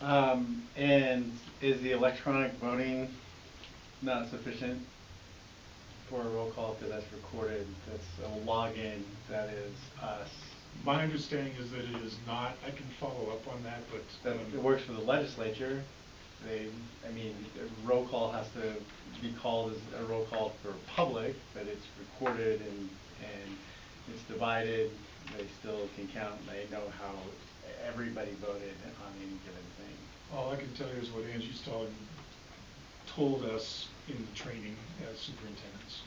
Um, and is the electronic voting not sufficient for a roll call because that's recorded? That's a login, that is us. My understanding is that it is not, I can follow up on that, but. That um, it works for the legislature. They, I mean, a roll call has to be called as a roll call for public, but it's recorded and, and it's divided. They still can count, they know how everybody voted on any given thing. All I can tell you is what Angie Stallings told us in the training as superintendents.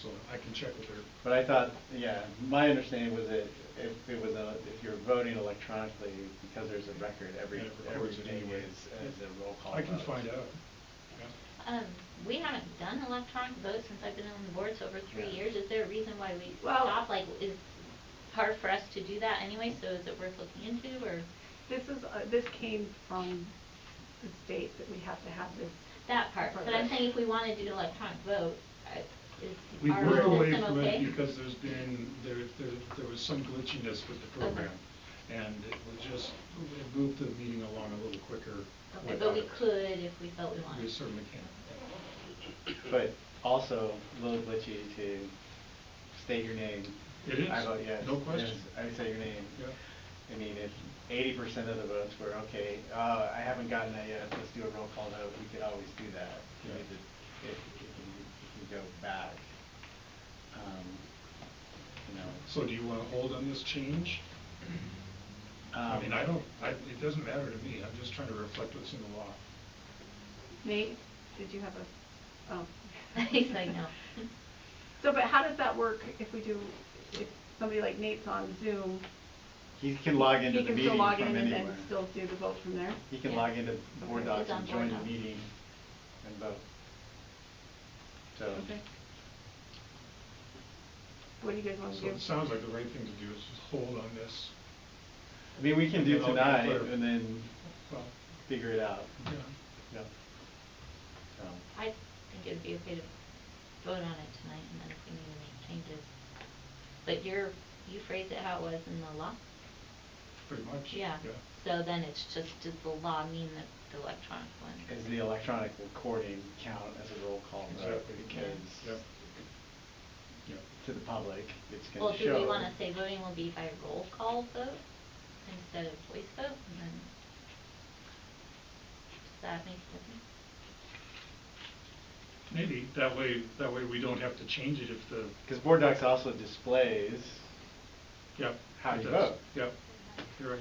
So I can check with her. But I thought, yeah, my understanding was that if it was a, if you're voting electronically, because there's a record, every, Yeah, it records it everything anyway. is, is a roll call I can vote. find out. Yeah. Um, we haven't done electronic votes since I've been on the board, so over three Yeah. years, is there a reason why we Well- stopped? Like, is hard for us to do that anyway, so is it worth looking into, or? This is, uh, this came from the state that we have to have this. That part, but I'm saying if we wanted to do electronic vote, I- We is our went away system from it okay? because there's been, there, there, there was some glitchiness with the Okay. program. And it was just, it moved the meeting along a little quicker. Okay, but we without it. could if we felt we wanted. We certainly can. But also, a little glitchy to state your name. It is, I vote yes. no question. yes, I say your name. Yeah. I mean, if eighty percent of the votes were, okay, uh, I haven't gotten that yet, let's do a roll call vote, we could always do that. I mean, Yeah. If, if if you, if you go back, um, you know. So do you want to hold on this change? I um, mean, I don't, I, it doesn't matter to me, I'm just trying to reflect what's in the law. Nate, did you have a, oh. He's like, no. So, but how does that work if we do, if somebody like Nate's on Zoom? He can log into the He can still meeting log from in and anywhere. then still do the vote from there? He can Yeah. log into Board Okay. Docs He's on and Board join the Docs. meeting and vote. So, Okay. What do you guys want to So do? it sounds like the right thing to do is just hold on this. I mean, we can do And I'll get tonight clear. and then Well, figure it out. yeah, Yep. So, I think it'd be okay to vote on it tonight, and then if we need to make changes. But you're, you phrased it how it was in the law? pretty much. Yeah. So then it's just, does the law mean that the electronic one? Is the electronic recording count as a roll call vote? Exactly. Yeah. Because Yeah. to the public, it's Well, gonna show. do we wanna say voting will be by roll call vote instead of voice vote, and then? Does that make sense? Maybe, that way, that way we don't have to change it if the, Because Board Docs also displays, yeah. How it you does. vote. Yep, you're right.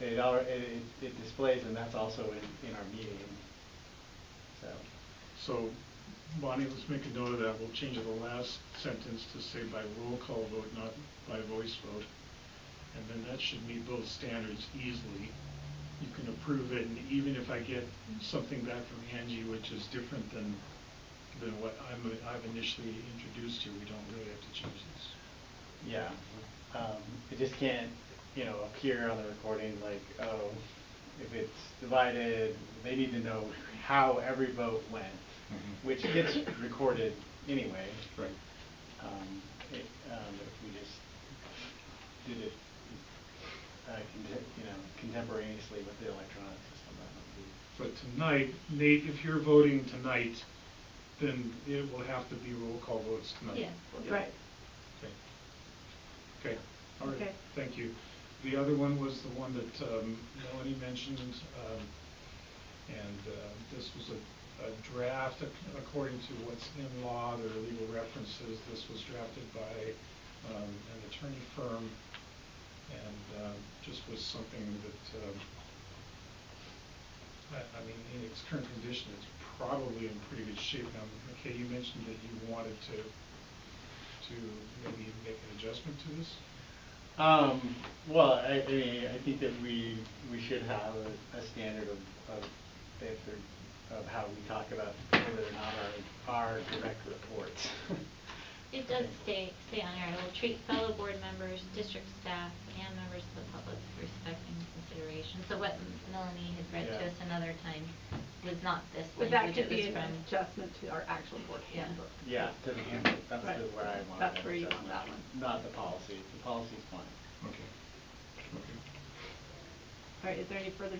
it, al- it, it- it displays and that's also in, in our meeting. So, So, Bonnie, let's make a note of that, we'll change the last sentence to say by roll call vote, not by voice vote. And then that should meet both standards easily. You can approve it, and even if I get something back from Angie which is different than, than what I'm, I've initially introduced you, we don't really have to change this. yeah, um, it just can't, you know, appear on the recording like, oh, if it's divided, they need to know how every vote went, which gets recorded anyway. Right. Um, it, um, if we just did it, uh, conte- you know, contemporaneously with the electronic system, that would be. But tonight, Nate, if you're voting tonight, then it will have to be roll call votes tonight. Yeah. Yeah. Right. Okay. Okay, all right, Okay. thank you. The other one was the one that um, Melanie mentioned, um, and uh, this was a- a draft ac- according to what's in law, there are legal references. This was drafted by um, an attorney firm, and um, just was something that, um, I I mean, in its current condition, it's probably in pretty good shape. Now, McKay, you mentioned that you wanted to to maybe make an adjustment to this? Um, well, I, I mean, I think that we, we should have a, a standard of, of, if there, of how we talk about whether or not our, our direct reports. It does stay, stay on air, it will treat fellow board members, district staff, and members of the public with respect and consideration. So what Melanie had read to Yeah. us another time was not this But that language, it could was be an from. adjustment to our actual board Yeah. handbook. Yeah, to the handbook, that's Right. the, where I want That's that where you adjustment, want that one. Not the policy, the policy's fine. Okay. Okay. All right, is there any further